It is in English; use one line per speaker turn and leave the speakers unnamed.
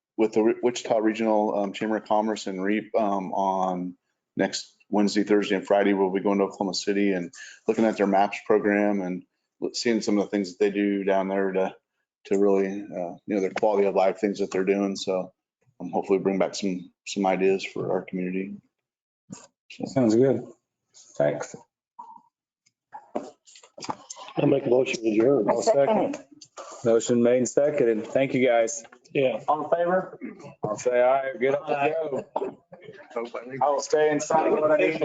with the Re- Wichita Regional um, Chamber of Commerce and REAP um, on next Wednesday, Thursday, and Friday. We'll be going to Oklahoma City and looking at their MAPS program and seeing some of the things that they do down there to, to really, uh, you know, their quality of life, things that they're doing. So um, hopefully bring back some, some ideas for our community.
Sounds good. Thanks.
I'll make a motion to adjourn.
I'll second. Motion made and seconded. Thank you, guys.
Yeah.
All in favor?
I'll say aye. Get up and go. I'll stay inside what I need.